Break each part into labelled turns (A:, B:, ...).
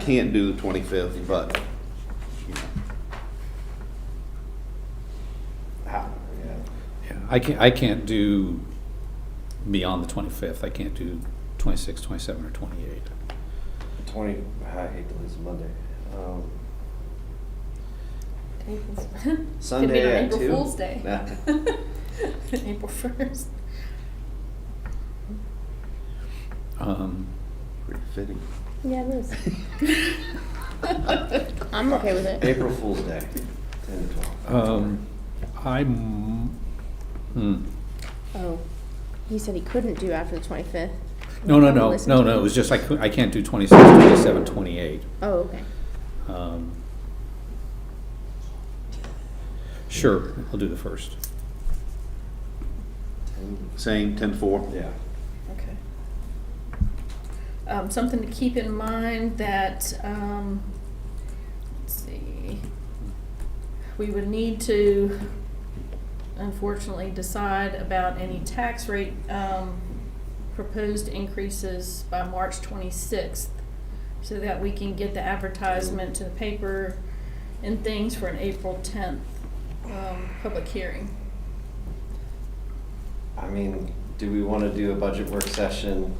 A: can't do the twenty-fifth, but, you know.
B: Ah,
A: How-
C: Yeah, I can't, I can't do beyond the twenty-fifth, I can't do twenty-six, twenty-seven, or twenty-eight.
B: Twenty, ah, I hate to lose Monday. Um,
D: Could be
B: Sunday at
D: on April
B: two.
D: Fool's Day.
B: Nah.
D: April first.
C: Um,
A: Pretty fitting.
E: Yeah, it is. I'm okay with it.
B: April Fool's Day, ten to twelve.
C: um, I'm, hmm.
E: Oh, he said he couldn't do after the twenty-fifth.
C: no, no, no, no, no, it was just, I couldn't, I can't do twenty-six, twenty-seven, twenty-eight.
E: Oh, okay.
C: Um, Sure, I'll do the first.
B: Ten-
A: Same, ten-four?
B: Yeah.
D: Okay. Um, something to keep in mind that, um, let's see, we would need to unfortunately decide about any tax rate, um, proposed increases by March twenty-sixth, so that we can get the advertisement to the paper and things for an April tenth, um, public hearing.
B: I mean, do we want to do a budget work session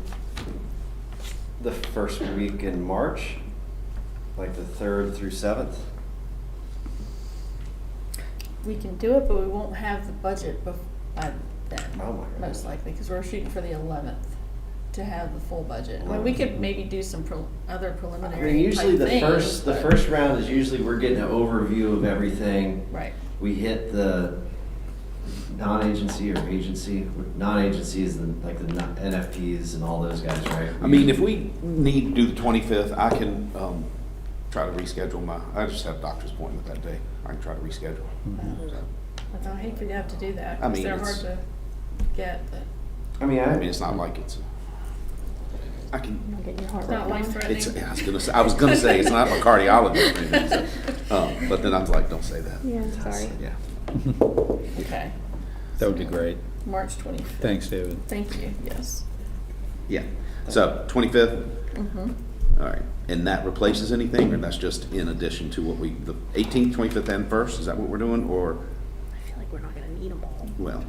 B: the first week in March? Like the third through seventh?
D: We can do it, but we won't have the budget bef- by then,
B: Oh my god.
D: most likely, because we're shooting for the eleventh to have the full budget. I mean, we could maybe do some prel- other
B: I
D: preliminary
B: mean, usually
D: type
B: the
D: things,
B: first, the
D: but-
B: first round is usually we're getting an overview of everything.
D: Right,
B: We hit the non-agency or agency, non-agency is the- like the non- NFPs and all those guys, right?
A: I mean, if we need to do the twenty-fifth, I can, um, try to reschedule my, I just have a doctor's appointment that day. I can try to reschedule. So,
D: But I hate to have to do that,
A: I
D: because
A: mean,
D: they're hard
A: it's-
D: to get, but
B: I mean,
A: I mean,
B: I,
A: it's not like it's, I can,
E: I'm not getting your heart
D: it's
E: rate
D: not life
E: going.
D: threatening.
A: it's, I was gonna say, I was gonna say, it's not a cardiologist or anything, so, um, but then I was like, don't say that.
E: Yeah, I'm sorry.
A: Yeah.
D: Okay,
C: That would be great.
D: March twenty-fifth,
C: Thanks, David.
D: thank you, yes.
A: Yeah, so twenty-fifth,
D: Mhm.
A: all right, and that replaces anything, or that's just in addition to what we, the eighteenth, twenty-fifth, and first, is that what we're doing, or,
E: I feel like we're not gonna need them all.
A: well,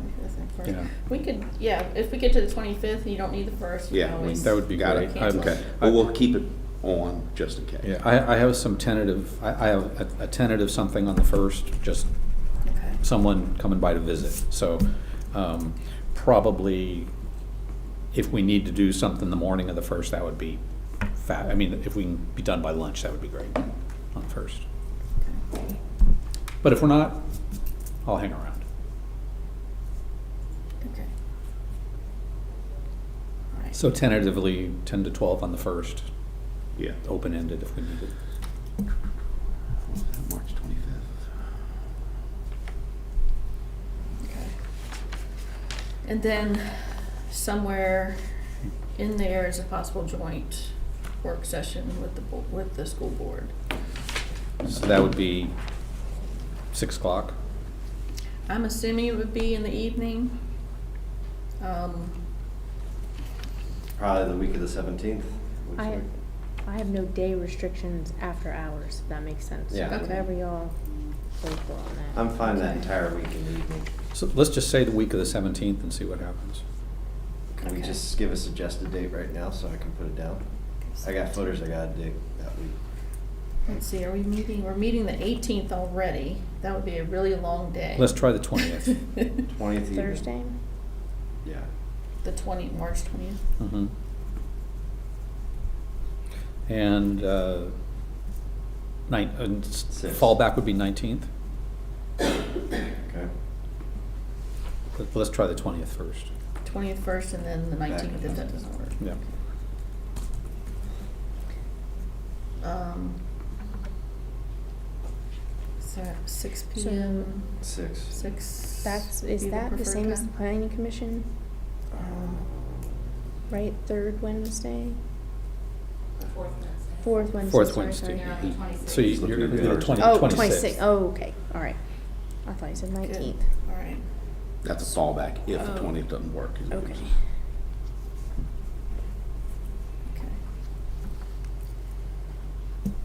C: Yeah.
D: We could, yeah, if we get to the twenty-fifth, you don't need the first, you
A: Yeah,
D: can
A: we-
D: always.
C: That would be
A: Got
C: great.
A: it.
C: I'm-
A: okay, well, we'll keep it on just in case.
C: Yeah, I, I have some tentative, I, I have a- a tentative something on the first, just
D: Okay.
C: someone coming by to visit. So um, probably if we need to do something the morning of the first, that would be fab. I mean, if we can be done by lunch, that would be great on the first. But if we're not, I'll hang around.
D: Okay. All right.
C: So tentatively, 10 to 12 on the first,
A: Yeah,
C: open-ended if we need it.
A: March twenty-fifth.
D: Okay. And then somewhere in there is a possible joint work session with the, bo- with the school board.
C: So that would be 6 o'clock.
D: I'm assuming it would be in the evening. Um,
B: probably the week of the seventeenth.
E: I, I have no day restrictions after hours, if that makes sense.
B: Yeah.
D: Okay.
E: Whatever y'all go for on that.
B: I'm fine that
D: Okay.
B: entire week in the evening.
C: So let's just say the week of the 17th and see what happens.
B: Can we
D: Okay.
B: just give a suggested date right now so I can put it down? I got footers I gotta dig that week.
D: Let's see, are we meeting, we're meeting the eighteenth already. That would be a really long day.
C: Let's try the 20th.
B: Twentieth evening.
E: Thursday?
B: Yeah.
D: The twenty, March twentieth.
C: Mhm. And uh, nine, and s-
B: Six.
C: fallback would be 19th.
B: Okay.
C: Let- Let's try the 20th first.
D: Twentieth first and then the
B: Back.
D: nineteenth if that doesn't work.
C: Yeah.
D: Um, so at six
E: So-
D: PM,
B: Six.
D: six.
E: That's,
D: be
E: is that the
D: preferred
E: same as the
D: time?
E: planning commission,
B: Um,
E: right? Third Wednesday? Fourth Wednesday.
C: Fourth
E: sorry,
C: Wednesday.
E: sorry.
C: So you- you're
A: Looking at
C: you're the
A: the
C: 20
E: Oh,
C: 26th.
E: twenty-six, oh, okay, all right. I thought you said
D: Good.
E: nineteenth.
D: All right.
A: That's a fallback if the
D: Oh.
A: twentieth doesn't work. is what we
E: Okay.
A: just-